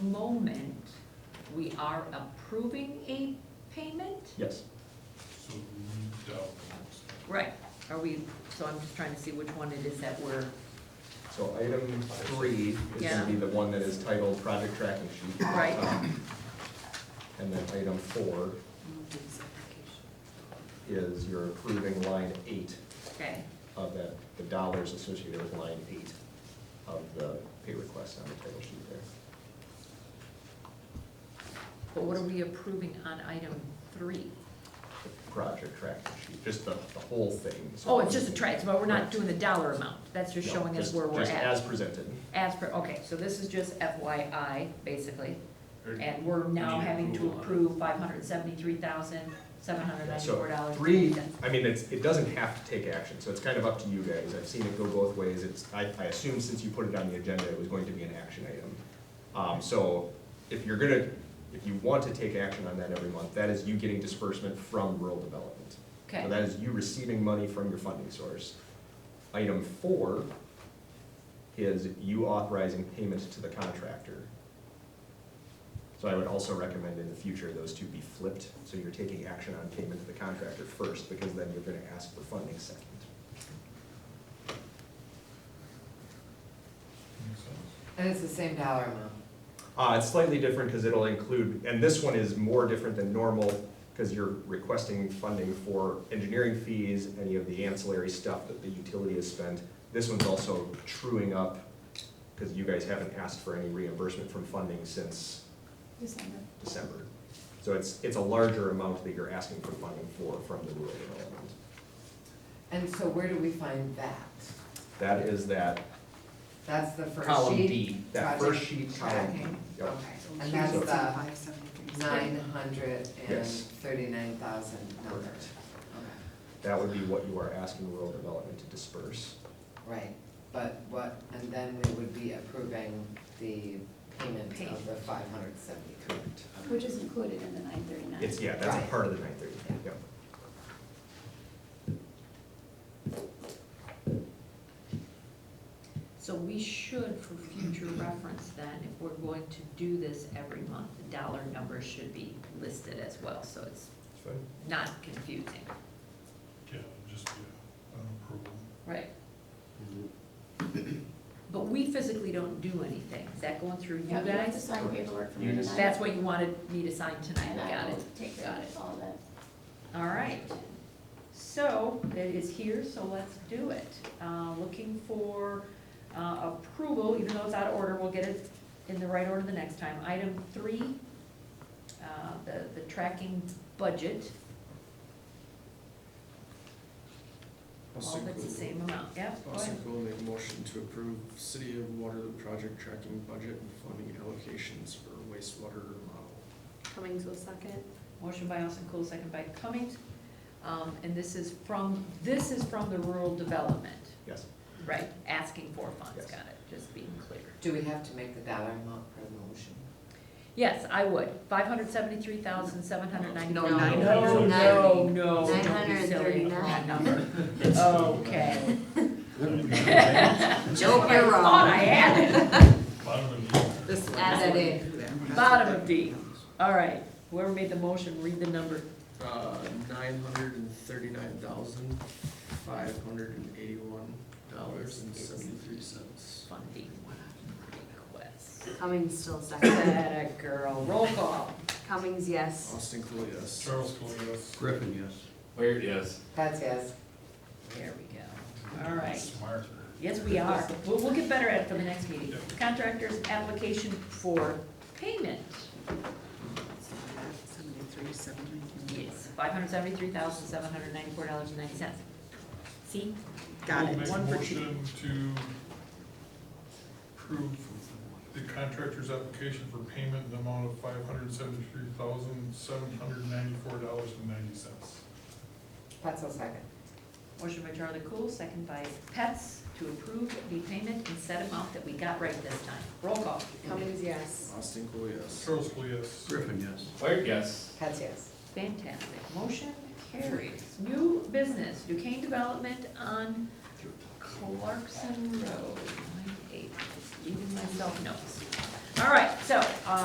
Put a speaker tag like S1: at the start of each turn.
S1: moment, we are approving a payment?
S2: Yes.
S3: So we don't.
S1: Right, are we, so I'm just trying to see which one it is that we're,
S2: So item three is
S1: Yeah.
S2: gonna be the one that is titled Project Tracking Sheet.
S1: Right.
S2: Um, And then item four is you're approving line eight
S1: okay,
S2: of that, the dollars associated with line eight of the pay request on the title sheet there.
S1: but what are we approving on item three?
S2: The Project Tracking Sheet, just the, the whole thing. so-
S1: Oh, it's just a trade, but we're not doing the dollar amount, that's just
S2: No,
S1: showing us
S2: just-
S1: where we're
S2: Just
S1: at.
S2: as presented.
S1: As per, okay, so this is just FYI, basically,
S3: Or-
S1: and we're now
S3: Need
S1: having to
S3: approval on it.
S1: approve five hundred seventy-three thousand, seven hundred ninety-four
S2: So
S1: dollars.
S2: three, I mean, it's, it doesn't have to take action, so it's kind of up to you guys. I've seen it go both ways. It's, I, I assume since you put it on the agenda, it was going to be an action item. Um, so if you're gonna, if you want to take action on that every month, that is you getting disbursement from rural development. So
S1: Okay,
S2: that is you receiving money from your funding source. Item four is you authorizing payment to the contractor. So I would also recommend in the future, those two be flipped, so you're taking action on payment to the contractor first, because then you're gonna ask for funding second.
S3: Makes sense.
S4: And it's the same dollar amount.
S2: Uh, it's slightly different, because it'll include, and this one is more different than normal, because you're requesting funding for engineering fees, any of the ancillary stuff that the utility has spent. This one's also truing up, because you guys haven't asked for any reimbursement from funding since
S5: December.
S2: December. So it's, it's a larger amount that you're asking for funding for from the rural development.
S4: And so where do we find that?
S2: That is that
S4: That's the first sheet?
S2: column D, that
S4: Project
S2: first sheet, column D.
S4: tracking.
S2: Yep.
S4: Okay, and that's
S2: So-
S4: the
S5: Five seventy-three.
S4: nine hundred and
S2: Yes.
S4: thirty-nine thousand number.
S2: Correct.
S4: Okay,
S2: That would be what you are asking rural development to disperse.
S4: right, but what, and then we would be approving the payment of
S1: Payment.
S4: the five hundred seventy-three.
S2: Correct.
S5: Which is included in the nine thirty-nine.
S2: It's, yeah, that's a
S4: Right.
S2: part of the nine thirty, yep.
S1: so we should, for future reference then, if we're going to do this every month, the dollar number should be listed as well, so it's not confusing.
S3: Yeah, it'd just be a- an approval.
S1: Right. But we physically don't do anything, is that going through you
S5: Yeah, we have to
S1: guys?
S5: sign paperwork from
S2: You
S5: you
S2: just-
S1: That's what you wanted me to sign tonight,
S5: And
S1: got
S5: I will
S1: it,
S5: take care
S1: got it.
S5: of all that.
S1: All right, so that is here, so let's do it. Uh, Looking for uh, approval, even though it's out of order, we'll get it in the right order the next time. Item three, uh, the, the tracking budget, all that's the same amount, yeah, go
S6: Austin
S1: ahead.
S6: Cool make a motion to approve City of Waterloo project tracking budget and funding allocations for wastewater remodel.
S5: Cummings will second.
S1: Motion by Austin Cool, second by Cummings. Um, And this is from, this is from the rural development,
S2: Yes,
S1: right, asking for funds,
S2: Yes.
S1: got it, just being clear.
S4: Do we have to make the dollar amount per motion?
S1: Yes, I would. Five hundred seventy-three thousand, seven hundred ninety-nine.
S4: No, nine
S3: hundred
S1: No,
S4: thirty.
S1: no,
S5: Nine
S1: don't be
S5: hundred
S1: silly.
S5: thirty-nine.
S1: Wrong number. Okay.
S4: Nope,
S1: I thought I had
S3: Bottom of the.
S4: This one.
S5: Add that in.
S1: it. Bottom of D. All right, whoever made the motion, read the number.
S6: Uh, nine hundred and thirty-nine thousand, five hundred and eighty-one dollars and seventy-three cents.
S1: Funding request.
S5: Cummings still second.
S1: That a girl. Roll call.
S5: Cummings, yes.
S6: Austin Cool, yes.
S3: Charles Cole, yes.
S6: Griffin, yes.
S7: Weird, yes.
S4: That's yes.
S1: There we go. All right.
S3: Smarter.
S1: Yes, we are. We'll, we'll get better at it for the next meeting. Contractor's application for payment. Yes, five hundred seventy-three thousand, seven hundred ninety-four dollars and ninety cents. See?
S3: We'll Make a
S1: One for cheap.
S3: motion to approve the contractor's application for payment in the amount of five hundred seventy-three thousand, seven hundred ninety-four dollars and ninety cents.
S4: That's a second.
S1: Motion by Charlie Cool, second by Pets, to approve the payment and set amount that we got right this time. Roll call.
S4: Cummings, yes.
S6: Austin Cool, yes.
S3: Charles Cole, yes.
S6: Griffin, yes.
S7: Weird, yes.
S4: That's yes.
S1: Fantastic. Motion carries. New business, Duquesne Development on Clarkson Road. Line eight. Just Leaving myself notes. All right, so, uh,